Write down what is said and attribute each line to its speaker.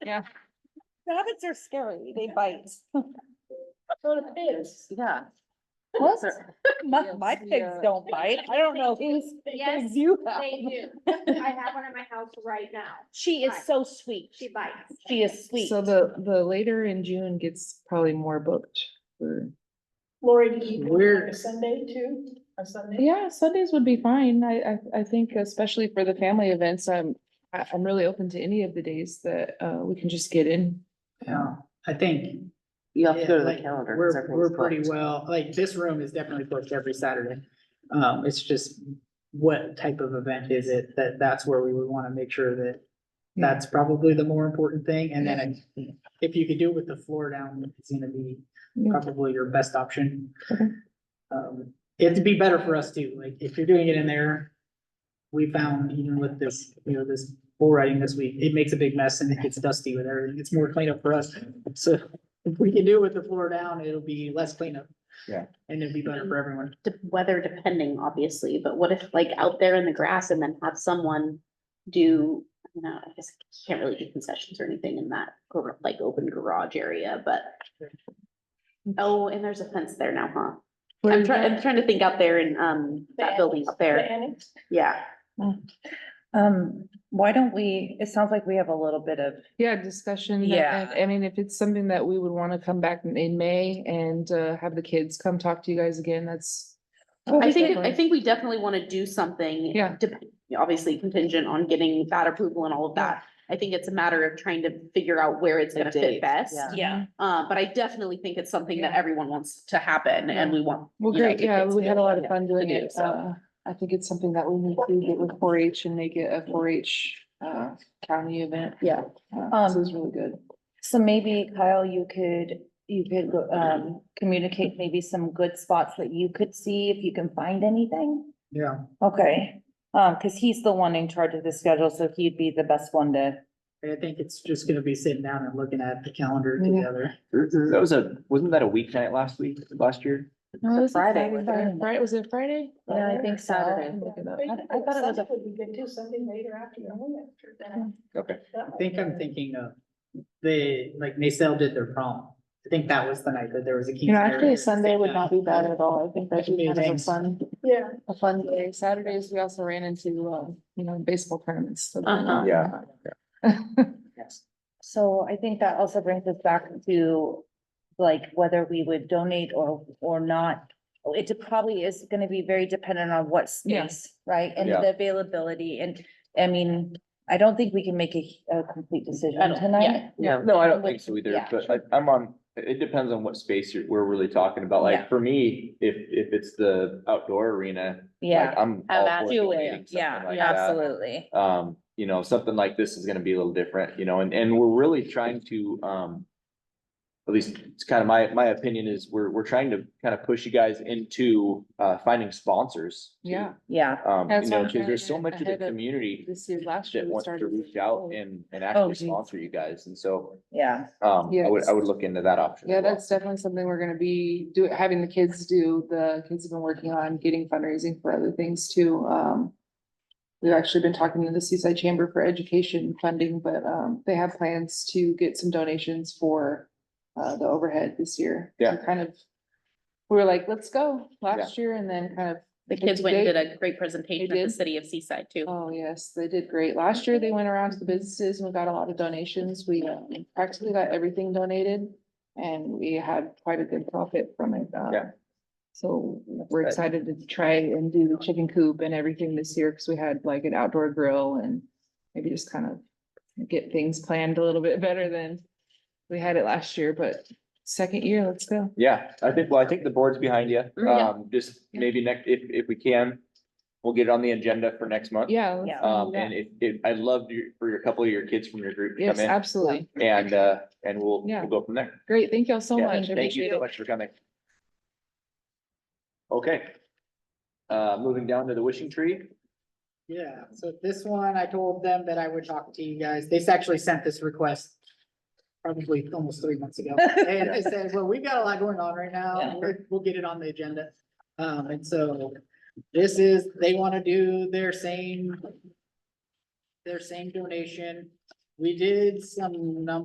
Speaker 1: Yeah.
Speaker 2: Rabbits are scary, they bite.
Speaker 3: So do the pigs.
Speaker 1: Yeah.
Speaker 2: What?
Speaker 1: They're-
Speaker 2: My,
Speaker 1: Yes,
Speaker 2: my pigs
Speaker 1: yeah.
Speaker 2: don't bite, I don't know who's,
Speaker 3: Yes,
Speaker 2: pigs you have.
Speaker 3: they do. I have one at my house right now.
Speaker 2: She is
Speaker 3: Right.
Speaker 2: so sweet,
Speaker 3: She bites.
Speaker 2: she is sweet.
Speaker 4: So the, the later in June gets probably more booked for,
Speaker 5: Lori, did you do
Speaker 4: Weird.
Speaker 5: a Sunday too? A Sunday?
Speaker 4: yeah, Sundays would be fine. I, I, I think especially for the family events, I'm, I, I'm really open to any of the days that, uh, we can just get in.
Speaker 6: Yeah, Um, I think
Speaker 1: You have to
Speaker 6: Yeah,
Speaker 1: go to the
Speaker 6: like,
Speaker 1: calendar. 'cause
Speaker 6: we're,
Speaker 1: everything's
Speaker 6: we're pretty
Speaker 1: booked.
Speaker 6: well, like this room is definitely booked every Saturday. Um, it's just what type of event is it? That, that's where we would want to make sure that that's probably the more important thing. And then if- if you could do it with the floor down, it's gonna be probably your best option.
Speaker 4: Okay.
Speaker 6: Um, it'd be better for us too, like if you're doing it in there. We found even with this, you know, this bull riding this week, it makes a big mess and it gets dusty with everything. It's more cleanup for us. So if we can do it with the floor down, it'll be less cleanup.
Speaker 7: Yeah.
Speaker 6: And it'd be better for everyone.
Speaker 8: de- weather depending, obviously, but what if like out there in the grass and then have someone do, you know, I guess you can't really do concessions or anything in that gar- like open garage area, but oh, and there's a fence there now, huh? I'm trying, I'm trying to think out there in um that building up
Speaker 5: The
Speaker 8: there.
Speaker 5: annex?
Speaker 8: Yeah.
Speaker 2: Um, why don't we, it sounds like we have a little bit of,
Speaker 4: Yeah, discussion.
Speaker 2: Yeah.
Speaker 4: and- I mean, if it's something that we would want to come back in- in May and, uh, have the kids come talk to you guys again, that's.
Speaker 8: I think, I think we definitely want to do something.
Speaker 4: Yeah.
Speaker 8: dep- Obviously contingent on getting that approval and all of that. I think it's a matter of trying to figure out where it's
Speaker 1: The
Speaker 8: gonna
Speaker 1: date,
Speaker 8: fit best.
Speaker 1: yeah.
Speaker 2: yeah,
Speaker 8: Uh, but I definitely think it's something that
Speaker 4: Yeah.
Speaker 8: everyone wants to happen and we want.
Speaker 4: Well,
Speaker 8: you know,
Speaker 4: great,
Speaker 8: the
Speaker 4: yeah,
Speaker 8: kids
Speaker 4: we
Speaker 8: to
Speaker 4: had a lot of
Speaker 8: be
Speaker 4: fun doing
Speaker 8: to do,
Speaker 4: it.
Speaker 8: so.
Speaker 4: Uh, I think it's something that we need to get with four H and make it a four H, uh, county event.
Speaker 8: Yeah.
Speaker 4: Uh, This is really good.
Speaker 2: so maybe Kyle, you could, you could, go, um, communicate maybe some good spots that you could see if you can find anything?
Speaker 6: Yeah.
Speaker 2: Okay, um, cause he's the one in charge of the schedule, so he'd be the best one to.
Speaker 6: I think it's just gonna be sitting down and looking at the calendar
Speaker 4: Yeah.
Speaker 6: together.
Speaker 7: That was a, wasn't that a weeknight last week, last year?
Speaker 4: No, it was a
Speaker 2: Friday,
Speaker 4: Saturday,
Speaker 2: wasn't it?
Speaker 4: Friday, was it Friday?
Speaker 2: Yeah, I think so.
Speaker 4: Let me look it up.
Speaker 5: Wait,
Speaker 2: I- I thought it was a- Hmm.
Speaker 5: Sunday Would be good too, Sunday later after your home after that.
Speaker 7: Okay.
Speaker 5: That
Speaker 6: I
Speaker 5: might
Speaker 6: think
Speaker 5: be
Speaker 6: I'm
Speaker 5: better.
Speaker 6: thinking of the, like Nacelle did their prom. I think that was the night that there was a.
Speaker 4: You know, actually, Sunday would not be
Speaker 2: uh,
Speaker 4: bad at all. I think that'd be kind of a
Speaker 6: Amazing.
Speaker 4: fun,
Speaker 5: Yeah.
Speaker 4: a fun day. Saturdays, we also ran into, uh, you know, baseball tournaments. so
Speaker 2: Uh-huh.
Speaker 4: why not?
Speaker 7: Yeah.
Speaker 6: Yes.
Speaker 2: So I think that also brings us back to like whether we would donate or, or not. Oh, It probably is gonna be very dependent on what
Speaker 4: Yeah.
Speaker 2: space, right? And
Speaker 7: Yeah.
Speaker 2: the availability and, I mean, I don't think we can make a, a complete
Speaker 8: I
Speaker 2: decision
Speaker 8: don't-
Speaker 2: tonight.
Speaker 1: Yeah.
Speaker 7: No, I don't think so either,
Speaker 2: Yeah.
Speaker 7: but I, I'm on, it depends on what space you're, we're really talking about.
Speaker 2: Yeah.
Speaker 7: Like, for me, if, if it's the outdoor arena, like,
Speaker 2: Yeah,
Speaker 7: I'm
Speaker 8: Have
Speaker 7: all
Speaker 8: at
Speaker 7: for
Speaker 2: it.
Speaker 7: donating something
Speaker 2: Yeah,
Speaker 7: like that.
Speaker 2: absolutely.
Speaker 7: Um, you know, something like this is gonna be a little different, you know, and, and we're really trying to, um, at least it's kind of my, my opinion is we're, we're trying to kind of push you guys into, uh, finding sponsors. too.
Speaker 4: Yeah.
Speaker 2: Yeah,
Speaker 7: Um, you
Speaker 4: That's
Speaker 7: know,
Speaker 4: what I'm
Speaker 7: cause there's so
Speaker 4: trying to
Speaker 7: much of the
Speaker 4: ahead of
Speaker 7: community
Speaker 4: This year, last year.
Speaker 7: that
Speaker 4: we
Speaker 7: wants to
Speaker 4: started
Speaker 7: reach
Speaker 4: with-
Speaker 7: out
Speaker 4: oh.
Speaker 7: and, and actually
Speaker 4: geez.
Speaker 7: sponsor you guys. And so,
Speaker 2: yeah,
Speaker 7: um, I would, I
Speaker 4: Yes.
Speaker 7: would look into that option. as
Speaker 4: Yeah,
Speaker 7: well.
Speaker 4: that's definitely something we're gonna be do, having the kids do. The kids have been working on getting fundraising for other things too. Um. We've actually been talking to the Seaside Chamber for Education funding, but um, they have plans to get some donations for uh, the overhead this year.
Speaker 7: Yeah.
Speaker 4: We're Kind of, we were like, let's go last year and then kind of.
Speaker 8: The kids went and
Speaker 4: They-
Speaker 8: did a great presentation at the
Speaker 4: did?
Speaker 8: city of Seaside too.
Speaker 4: Oh, yes, they did great. Last year, they went around to the businesses and we got a lot of donations. We um, practically got everything donated. And we had quite a good profit from it. uh,
Speaker 7: Yeah.
Speaker 4: So we're
Speaker 7: good.
Speaker 4: excited to try and do the chicken coop and everything this year because we had like an outdoor grill and maybe just kind of get things planned a little bit better than we had it last year, but second year, let's go.
Speaker 7: Yeah, I think, well, I think the board's behind you.
Speaker 4: Mm,
Speaker 8: Yeah.
Speaker 7: Um, just maybe next, if, if we can, we'll get it on the agenda for next month.
Speaker 4: Yeah. let's
Speaker 2: Yeah.
Speaker 4: do
Speaker 7: Um,
Speaker 4: that.
Speaker 7: and if, if, I'd love your, for your, a couple of your kids from your group to
Speaker 4: Yes,
Speaker 7: come in
Speaker 4: absolutely.
Speaker 7: and, uh, and we'll,
Speaker 4: Yeah.
Speaker 7: we'll go from there.
Speaker 4: Great. Thank y'all so
Speaker 7: Yeah,
Speaker 4: much. I
Speaker 7: Thank you
Speaker 4: appreciate
Speaker 7: so
Speaker 4: it.
Speaker 7: much for coming. Okay. Uh, moving down to the wishing tree.
Speaker 6: Yeah, so this one, I told them that I would talk to you guys. They actually sent this request probably almost three months ago. And they said, well, we've got a lot going on right now. and we're- We'll get it on the agenda. Um, and so this is, they want to do their same their same donation We did some number